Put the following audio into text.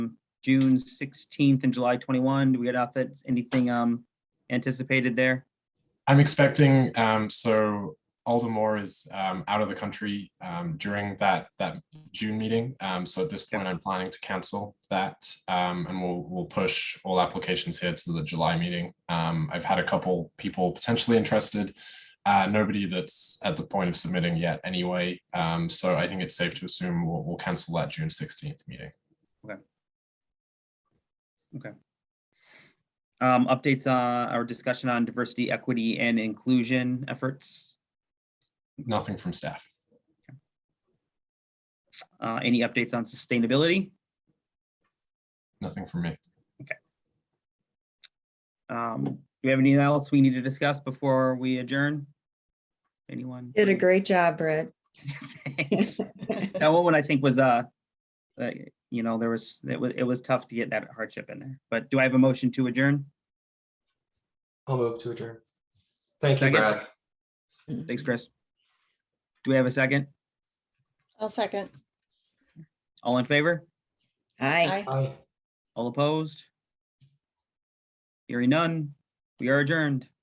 June sixteenth and July twenty-one. Do we get out that, anything um anticipated there? I'm expecting, um, so Aldermore is, um, out of the country, um, during that, that June meeting. Um, so at this point, I'm planning to cancel that, um, and we'll, we'll push all applications here to the July meeting. Um, I've had a couple people potentially interested, uh, nobody that's at the point of submitting yet anyway. Um, so I think it's safe to assume we'll, we'll cancel that June sixteenth meeting. Um, updates, uh, our discussion on diversity, equity, and inclusion efforts. Nothing from staff. Uh, any updates on sustainability? Nothing from me. Um, do we have anything else we need to discuss before we adjourn? Anyone? Did a great job, Brett. Thanks. That one, I think was, uh, uh, you know, there was, it was, it was tough to get that hardship in there, but do I have a motion to adjourn? I'll move to adjourn. Thank you, Second. Brad. Thanks, Chris. Do we have a second? I'll second. All in favor? Hi. Aye. Aye. All opposed? Hearing none, we are adjourned.